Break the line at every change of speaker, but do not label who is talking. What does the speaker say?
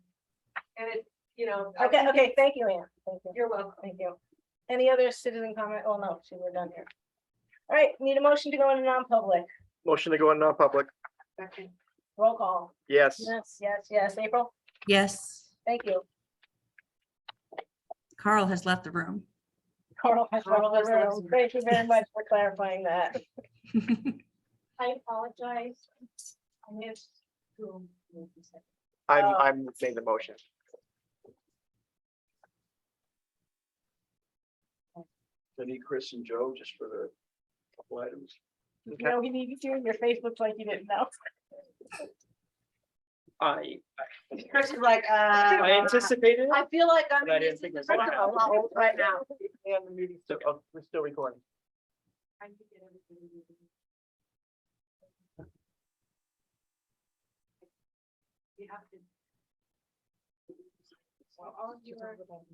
you know. I'll
Okay,
keep-
okay, thank you, Anne. Thank you.
You're welcome.
Thank you. Any other citizen comment? Oh, no, see, we're done here. All right, need a motion to go into non-public.
Motion to go in non-public.
Second.
Roll call.
Yes.
Yes, yes, yes. April,
Yes,
thank you.
Carl has left the room.
Carl has
Carl has
left the
left
room. Thank you very much for clarifying that.
I apologize. I missed who.
I'm,
Oh.
I'm making the motion.
I need Chris and Joe just for the couple items.
You know, we needed you. Your face looks like you didn't know.
I,
Chris is like,
I
uh,
anticipated. it,
I feel like I'm.
But I didn't
using
think
the
that's what
principal
happened.
level Right now.
And the meeting, so, oh, we're still recording.
You have to. So all of you are.